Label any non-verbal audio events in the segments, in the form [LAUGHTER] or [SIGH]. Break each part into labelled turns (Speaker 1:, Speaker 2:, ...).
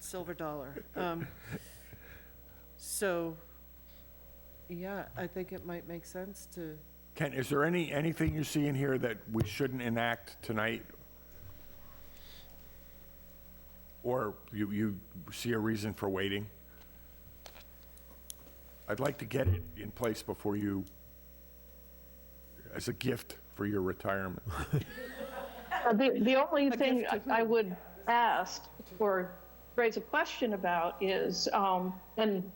Speaker 1: silver dollar. Um, So, yeah, I think it might make sense to,
Speaker 2: Ken, is there any, anything you see in here that we shouldn't enact tonight? Or you, you see a reason for waiting? I'd like to get it in place before you, as a gift for your retirement.
Speaker 3: Uh, The, the only thing
Speaker 1: gift to
Speaker 3: I I would ask or raise a question about is, um, and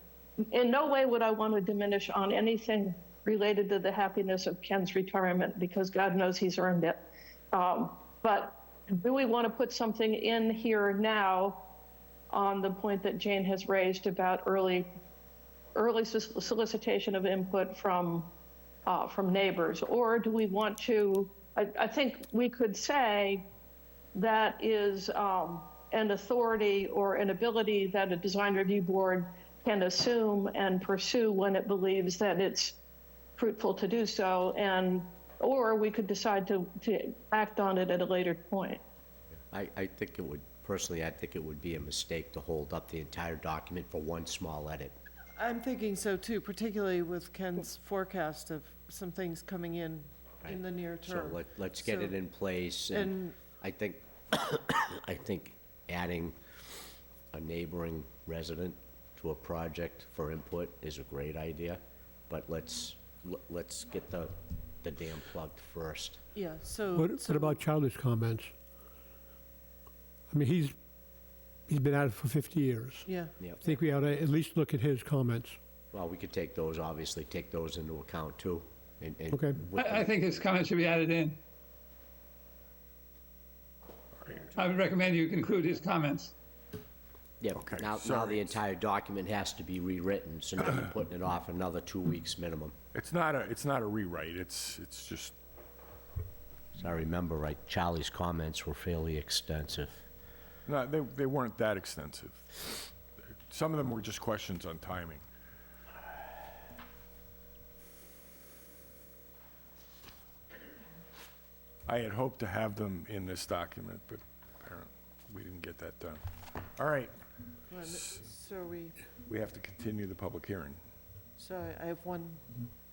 Speaker 3: in no way would I want to diminish on anything related to the happiness of Ken's retirement because God knows he's earned it. Um, but do we want to put something in here now on the point that Jane has raised about early, early solic- solicitation of input from uh, from neighbors? Or do we want to, I, I think we could say that is um, an authority or an ability that a design review board can assume and pursue when it believes that it's fruitful to do so. And, or we could decide to, to act on it at a later point.
Speaker 4: I, I think it would, personally, I think it would be a mistake to hold up the entire document for one small edit.
Speaker 1: I'm thinking so too, particularly with Ken's forecast of some things coming in, in the near
Speaker 4: So
Speaker 1: term.
Speaker 4: let, let's get it
Speaker 1: So-
Speaker 4: in place,
Speaker 1: and-
Speaker 4: and I think, [COUGHS] I think adding a neighboring resident to a project for input is a great idea, but let's, let's get the, the dam plugged first.
Speaker 1: Yeah, so.
Speaker 5: What, what
Speaker 1: so-
Speaker 5: about childish comments? I mean, he's, he's been at it for 50 years.
Speaker 1: Yeah,
Speaker 5: I
Speaker 4: Yep.
Speaker 5: think we ought to at least look at his comments.
Speaker 4: Well, we could take those, obviously, take those into account too, and, and.
Speaker 5: Okay.
Speaker 4: with the-
Speaker 6: I, I think this comment should be added in. I would recommend you conclude his comments.
Speaker 4: Yeah,
Speaker 2: Okay,
Speaker 4: now, now
Speaker 2: sorry.
Speaker 4: the entire document has to be rewritten, so now you're putting it off another two weeks minimum.
Speaker 2: It's not a, it's not a rewrite, it's, it's just,
Speaker 4: So I remember right, Charlie's comments were fairly extensive.
Speaker 2: no, they, they weren't that extensive. Some of them were just questions on timing. I had hoped to have them in this document, but apparently we didn't get that done. All right,
Speaker 1: Well, so we,
Speaker 2: we have to continue the public hearing.
Speaker 1: so I- I have one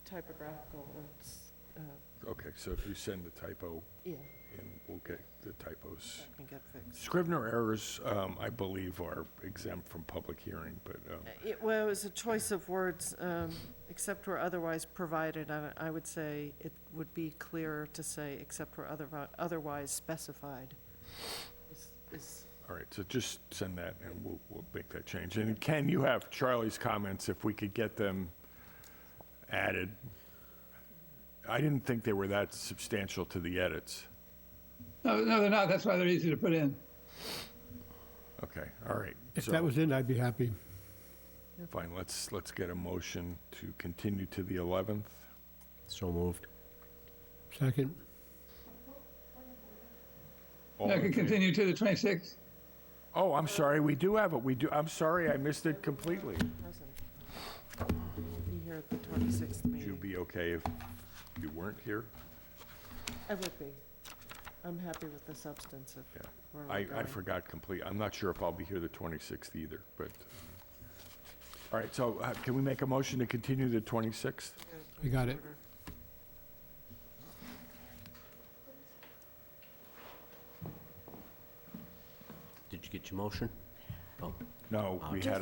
Speaker 1: typographical, it's, uh,
Speaker 2: Okay, so if you send the typo
Speaker 1: yeah,
Speaker 2: in, we'll get the typos.
Speaker 1: that can get fixed.
Speaker 2: Scrivener errors, um, I believe, are exempt from public hearing, but, um,
Speaker 1: It, well, it was a choice of words, um, except where otherwise provided, I, I would say it would be clearer to say except where other, otherwise specified. Is- is-
Speaker 2: all right, so just send that and we'll, we'll make that change. And Ken, you have Charlie's comments, if we could get them added. I didn't think they were that substantial to the edits.
Speaker 6: No, no, they're not. That's why they're easy to put in.
Speaker 2: Okay, all right.
Speaker 5: If
Speaker 2: so-
Speaker 5: that was in, I'd be happy.
Speaker 2: Fine, let's, let's get a motion to continue to the 11th.
Speaker 4: So moved.
Speaker 5: Second.
Speaker 2: All
Speaker 6: I
Speaker 4: Oh,
Speaker 2: in
Speaker 6: can
Speaker 2: favor-
Speaker 6: continue to the 26th.
Speaker 2: Oh, I'm sorry, we do have it, we do, I'm sorry, I missed it completely.
Speaker 1: Present. Be here at the 26th
Speaker 2: Would you
Speaker 1: meeting.
Speaker 2: be okay if you weren't here?
Speaker 1: I would be. I'm happy with the substance of
Speaker 2: Yeah.
Speaker 1: where we're
Speaker 2: I, I
Speaker 1: going.
Speaker 2: forgot complete, I'm not sure if I'll be here the 26th either, but, all right, so uh, can we make a motion to continue the 26th?
Speaker 5: We got it.
Speaker 4: Did you get your motion? Oh,
Speaker 2: No,
Speaker 1: Uh,
Speaker 2: we had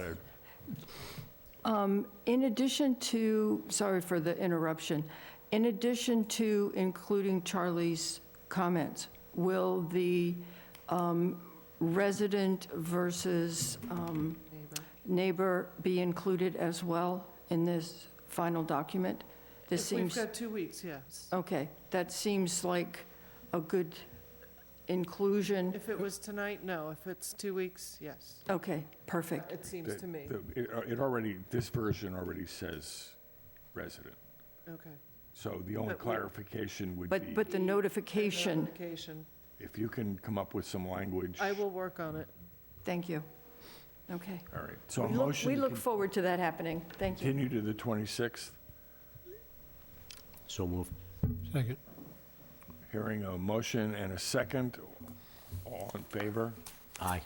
Speaker 2: a,
Speaker 7: In addition to, sorry for the interruption, in addition to including Charlie's comments, will the um, resident versus um, neighbor be included as well in this final document? This
Speaker 1: If We've
Speaker 7: seems, Oh.
Speaker 1: got two weeks, yes.
Speaker 7: okay, that seems like a good inclusion.
Speaker 1: If it was tonight, no. If it's two weeks, yes.
Speaker 7: Okay, perfect.
Speaker 1: It seems to me.
Speaker 2: the- it uh, it already, this version already says resident,
Speaker 1: Okay.
Speaker 2: so the only
Speaker 1: But we-
Speaker 2: clarification would
Speaker 7: But,
Speaker 2: be,
Speaker 7: but the notification,
Speaker 1: Notification.
Speaker 2: if you can come up with some language.
Speaker 1: I will work on it.
Speaker 7: thank you. Okay.
Speaker 2: All right, so a
Speaker 7: We look-
Speaker 2: motion
Speaker 7: We
Speaker 2: to
Speaker 7: look forward to that happening. Thank you.
Speaker 2: continue to the 26th,
Speaker 4: so moved.
Speaker 5: Second.
Speaker 2: hearing a motion and a second, all in favor?
Speaker 4: Aye.